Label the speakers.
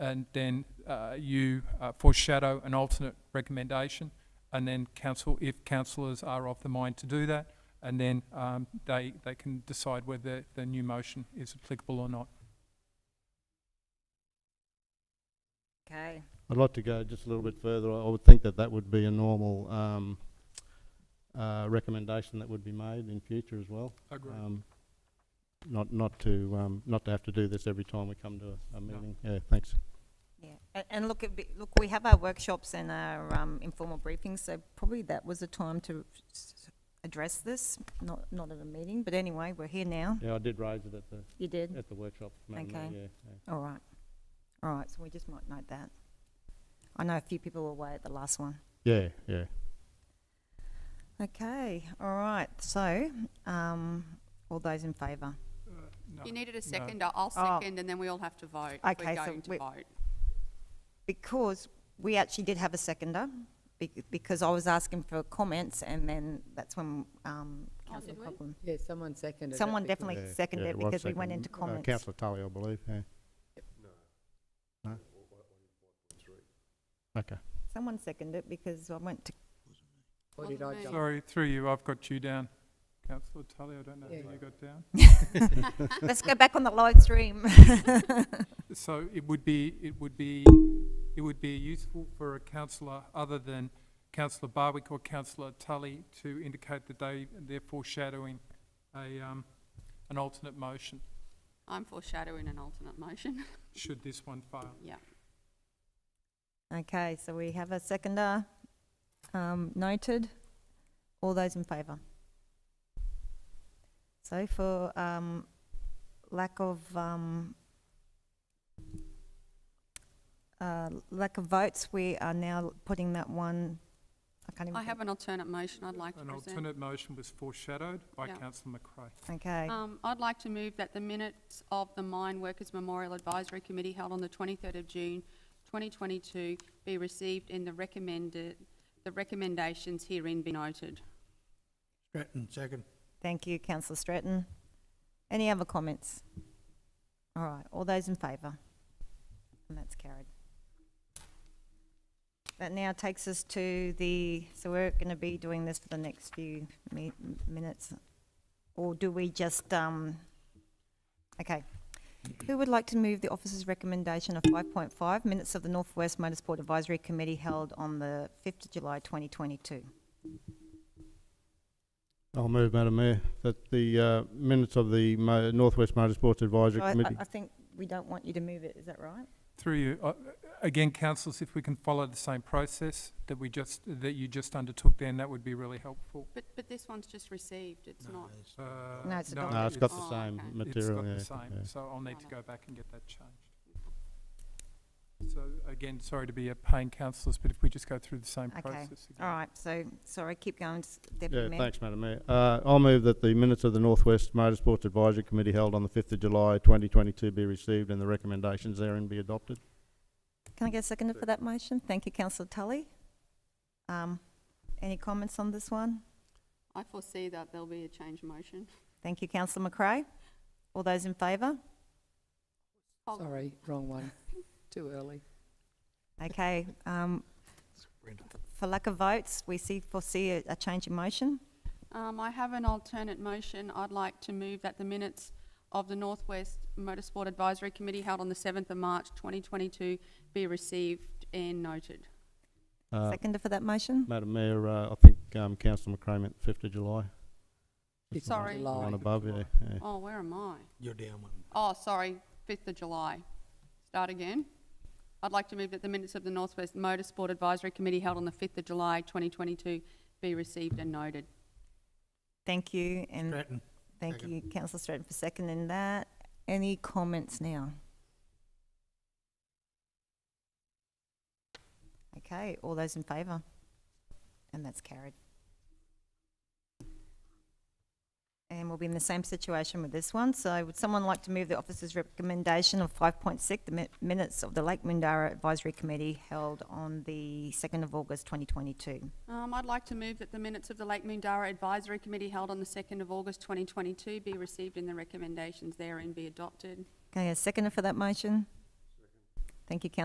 Speaker 1: and then uh, you uh, foreshadow an alternate recommendation, and then council, if councillors are of the mind to do that, and then um, they, they can decide whether the new motion is applicable or not.
Speaker 2: Okay,
Speaker 3: I'd like to go just a little bit further. I I would think that that would be a normal um, uh, recommendation that would be made in future as well.
Speaker 1: Agreed.
Speaker 3: Um, Not, not to, um, not to have to do this every time we come to a- a meeting. Yeah, thanks.
Speaker 2: yeah, and, and look, it'd be, look, we have our workshops and our, um, informal briefings, so probably that was a time to s- address this, not, not at a meeting, but anyway, we're here now.
Speaker 3: Yeah, I did raise it at the,
Speaker 2: You did?
Speaker 3: at the workshop. Madam Mayor,
Speaker 2: Okay.
Speaker 3: yeah, yeah.
Speaker 2: All right, all right, so we just might note that. I know a few people were away at the last one.
Speaker 3: Yeah, yeah.
Speaker 2: Okay, all right, so, um, all those in favour?
Speaker 1: Uh,
Speaker 4: You needed a second, I'll- I'll
Speaker 2: Oh.
Speaker 4: second, and then we all have to vote. if
Speaker 2: Okay,
Speaker 4: We're
Speaker 2: so
Speaker 4: going to
Speaker 2: we-
Speaker 4: vote.
Speaker 2: Because we actually did have a seconder, bec- because I was asking for comments and then that's when, um, councillor
Speaker 4: did we?
Speaker 2: Cobham.
Speaker 5: Yeah, someone seconded it.
Speaker 2: Someone
Speaker 5: because-
Speaker 2: definitely
Speaker 3: Yeah,
Speaker 2: seconded
Speaker 3: yeah,
Speaker 2: it
Speaker 3: was
Speaker 2: because we went
Speaker 3: seconded.
Speaker 2: into
Speaker 3: Uh,
Speaker 2: comments.
Speaker 3: Councillor Tully, I believe, yeah. No? Okay.
Speaker 2: Someone seconded it because I went to,
Speaker 5: Or did I
Speaker 4: Wasn't me.
Speaker 5: jump?
Speaker 1: Sorry, through you, I've got you down. Councillor Tully, I don't know
Speaker 5: Yeah.
Speaker 1: who you got down.
Speaker 2: let's go back on the live stream.
Speaker 1: So it would be, it would be, it would be useful for a councillor other than councillor Barwick or councillor Tully to indicate that they, they're foreshadowing a, um, an alternate motion,
Speaker 4: I'm foreshadowing an alternate motion.
Speaker 1: should this one fail.
Speaker 4: Yeah.
Speaker 2: Okay, so we have a seconder, um, noted. All those in favour? So for, um, lack of, um, uh, lack of votes, we are now putting that one, I can't even.
Speaker 4: I have an alternate motion I'd like to
Speaker 1: An
Speaker 4: present.
Speaker 1: alternate motion was foreshadowed by
Speaker 4: Yeah.
Speaker 1: councillor McRae.
Speaker 2: think. Okay,
Speaker 4: Um, I'd like to move that the minutes of the Mine Workers Memorial Advisory Committee held on the 23rd of June 2022 be received and the recommended, the recommendations herein be noted.
Speaker 6: Gretton, second.
Speaker 2: thank you councillor Stratton. Any other comments? All right, all those in favour? And that's carried. That now takes us to the, so we're going to be doing this for the next few mi- minutes, or do we just, um, okay. Who would like to move the officer's recommendation of five point five, minutes of the Northwest Motorsport Advisory Committee held on the fifth of July twenty twenty-two?
Speaker 3: I'll move, Madam Mayor, that the uh, minutes of the Mo- Northwest Motorsports Advisory
Speaker 2: I,
Speaker 3: Committee.
Speaker 2: I think we don't want you to move it, is that right?
Speaker 1: Through you, uh, again, councillors, if we can follow the same process that we just, that you just undertook then, that would be really helpful.
Speaker 4: But, but this one's just received, it's not.
Speaker 1: Uh,
Speaker 2: No, it's adopted.
Speaker 3: No, it's got the
Speaker 4: Oh,
Speaker 3: same
Speaker 4: okay.
Speaker 1: It's
Speaker 3: material,
Speaker 1: got
Speaker 3: yeah.
Speaker 1: the same,
Speaker 3: yeah.
Speaker 1: so I'll need to
Speaker 4: Oh,
Speaker 1: go back and get that changed. So again, sorry to be a pain councillors, but if we just go through the same
Speaker 2: Okay.
Speaker 1: process again.
Speaker 2: All right, so, sorry, keep going, s-
Speaker 3: Yeah,
Speaker 2: Deputy Mayor.
Speaker 3: thanks, Madam Mayor. Uh, I'll move that the minutes of the Northwest Motorsports Advisory Committee held on the fifth of July, twenty twenty-two be received and the recommendations therein be adopted.
Speaker 2: Can I get a seconder for that motion? Thank you, councillor Tully. Um, Any comments on this one?
Speaker 4: I foresee that there'll be a change of motion.
Speaker 2: Thank you, councillor McRae. All those in favour?
Speaker 4: Oh,
Speaker 5: Sorry, wrong one. Too early.
Speaker 2: Okay, um, for lack of votes, we see, foresee a a change in motion.
Speaker 4: Um, I have an alternate motion. I'd like to move that the minutes of the Northwest Motorsport Advisory Committee held on the 7th of March 2022 be received and noted.
Speaker 3: Uh,
Speaker 2: Seconder for that motion?
Speaker 3: Madam Mayor, uh, I think, um, Councillor McCray meant fifth of July.
Speaker 5: It's
Speaker 4: Sorry.
Speaker 3: The one
Speaker 5: July.
Speaker 3: above, yeah, yeah.
Speaker 4: Oh, where am I?
Speaker 6: You're down one.
Speaker 4: Oh, sorry, 5th of July. Start again. I'd like to move that the minutes of the Northwest Motorsport Advisory Committee held on the 5th of July 2022 be received and noted.
Speaker 2: Thank you, and
Speaker 6: Gretton,
Speaker 2: thank
Speaker 6: second.
Speaker 2: you, councillor Stratton, for seconding that. Any comments now? Okay, all those in favour? And that's carried. And we'll be in the same situation with this one, so would someone like to move the officer's recommendation of five point six, the mi- minutes of the Lake Mundara Advisory Committee held on the second of August twenty twenty-two?
Speaker 4: Um, I'd like to move that the minutes of the Lake Mundara Advisory Committee held on the 2nd of August 2022 be received and the recommendations therein be adopted.
Speaker 2: Okay, a seconder for that motion? Thank you, Councillor